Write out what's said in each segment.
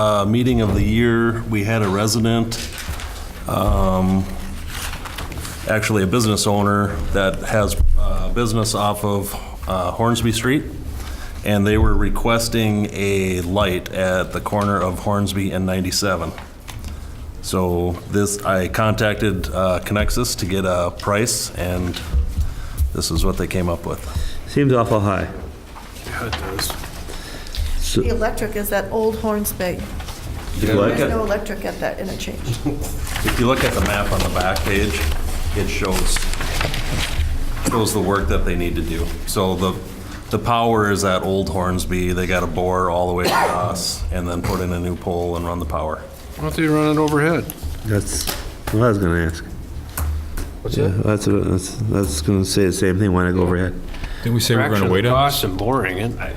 uh, meeting of the year, we had a resident, um, actually a business owner that has uh business off of uh, Hornsby Street, and they were requesting a light at the corner of Hornsby and 97. So this, I contacted uh, Conexus to get a price, and this is what they came up with. Seems awful high. The electric is that old Hornsby. If you look There's no at- electric at that interchange. if you look at the map on the back page, it shows, shows the work that they need to do. So the, the power is at Old Hornsby, they got to bore all the way across and then put in a new pole and run the power. Why don't they run it overhead? That's what I was gonna ask. What's Yeah, that's, what- that's, that's gonna say the same thing when I go overhead. Didn't we say we're going Fraction to of wait the on? Cost and boring it. I-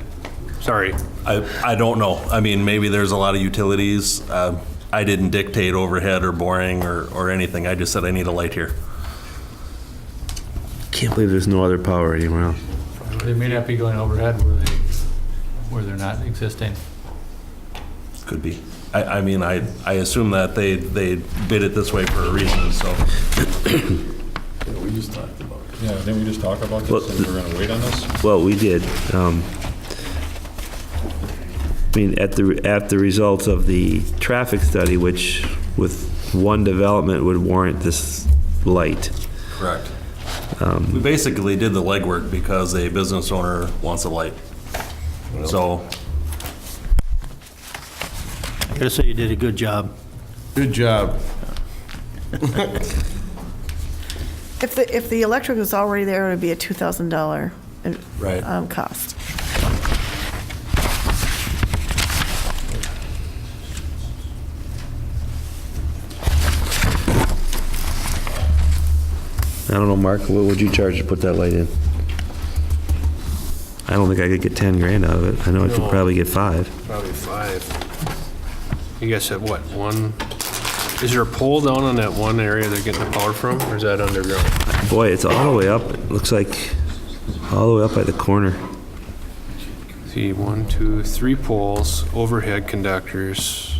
Sorry. I, I don't know. I mean, maybe there's a lot of utilities. Uh, I didn't dictate overhead or boring or, or anything. I just said I need a light here. Can't believe there's no other power anywhere else. They may not be going overhead where they, where they're not existing. Could be. I, I mean, I, I assume that they, they bid it this way for a reason, so. We just talked about it. Yeah, didn't we just talk about this, and we're going to wait on this? Well, we did. um, I mean, at the, at the results of the traffic study, which with one development would warrant this light. Correct. Um, We basically did the legwork because a business owner wants a light. So, I gotta say, you did a good job. Good job. If the, if the electric was already there, it would be a $2,000 in- Right. um, cost. I don't know, Mark, what would you charge to put that light in? I don't think I could get 10 grand out of it. I know I could No. probably get five. Probably five. You guys said what, one? Is there a pole down on that one area they're getting the power from, or is that underground? Boy, it's all the way up, it looks like, all the way up at the corner. See, one, two, three poles, overhead conductors.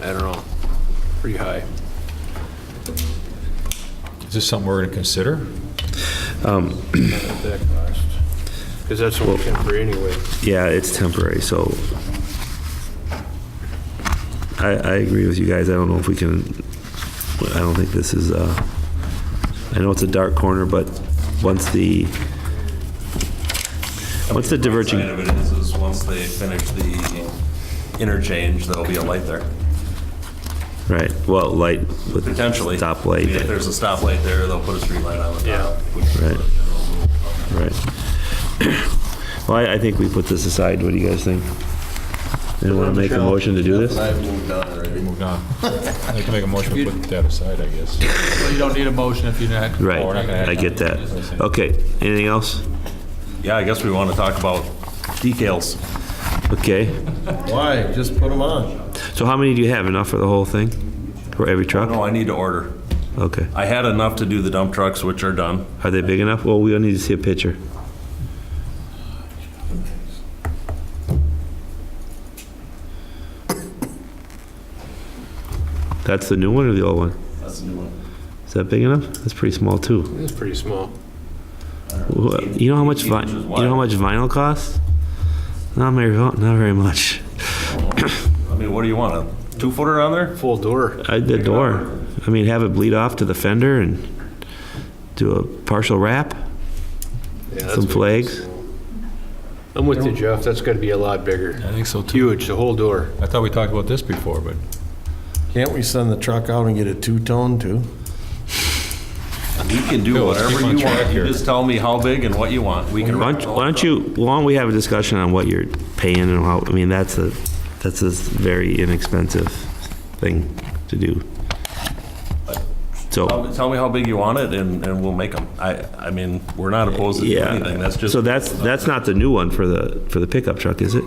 I don't know, pretty high. Is this something we're going to consider? Because that's only temporary anyway. Yeah, it's temporary, so I, I agree with you guys. I don't know if we can, I don't think this is, uh, I know it's a dark corner, but once the, once the Side diverging, of it is, is once they finish the interchange, there'll be a light there, right, well, light with potentially. I mean, If stoplight, there's a stoplight there, they'll put a street light on the top. Yeah. which is a Right. general rule. right. Well, I, I think we put this aside. What do you guys think? Anyone want to make a motion to do this? I've moved on already. Moved on. I'd like to make a motion to put that aside, I guess. Well, you don't need a motion if you're not. Right, Oh, we're not gonna have I get that. Okay, anything else? Yeah, I guess we want to talk about decals. Okay, Why? Just put them on. so how many do you have? Enough for the whole thing? For every truck? No, I need to order. Okay. I had enough to do the dump trucks, which are done. Are they big enough? Well, we'll need to see a picture. That's the new one or the old one? That's a new one. Is that big enough? That's pretty small too. It's pretty small. Wha- You know how much vi- you know how much vinyl costs? Not very, not very much. I mean, what do you want, a two-footer on there? Full door. I, the door. I mean, have it bleed off to the fender and do a partial wrap. Yeah, that's Some big. flags. I'm with you, Jeff. That's gotta be a lot bigger. I think so too. Huge, the whole door. I thought we talked about this before, but Can't we send the truck out and get a two-tone too? You can do Phil, let's whatever keep on you track want. You here. just tell me how big and what you want. We can. Why wrap don't, it all why up. don't you, why don't we have a discussion on what you're paying and how, I mean, that's a, that's a very inexpensive thing to do. Tell So, me- Tell me how big you want it and, and we'll make them. I, I mean, we're not opposed to anything. yeah, That's just, so that's, that's not the new one for the, for the pickup truck, is it?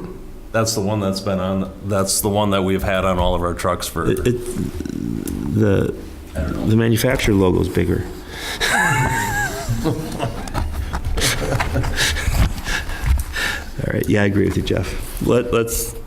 that's the one that's been on, that's the one that we've had on all of our trucks for, It, it- the, the manufacturer logo's bigger. All right, yeah, I agree with you, Jeff. Let, let's,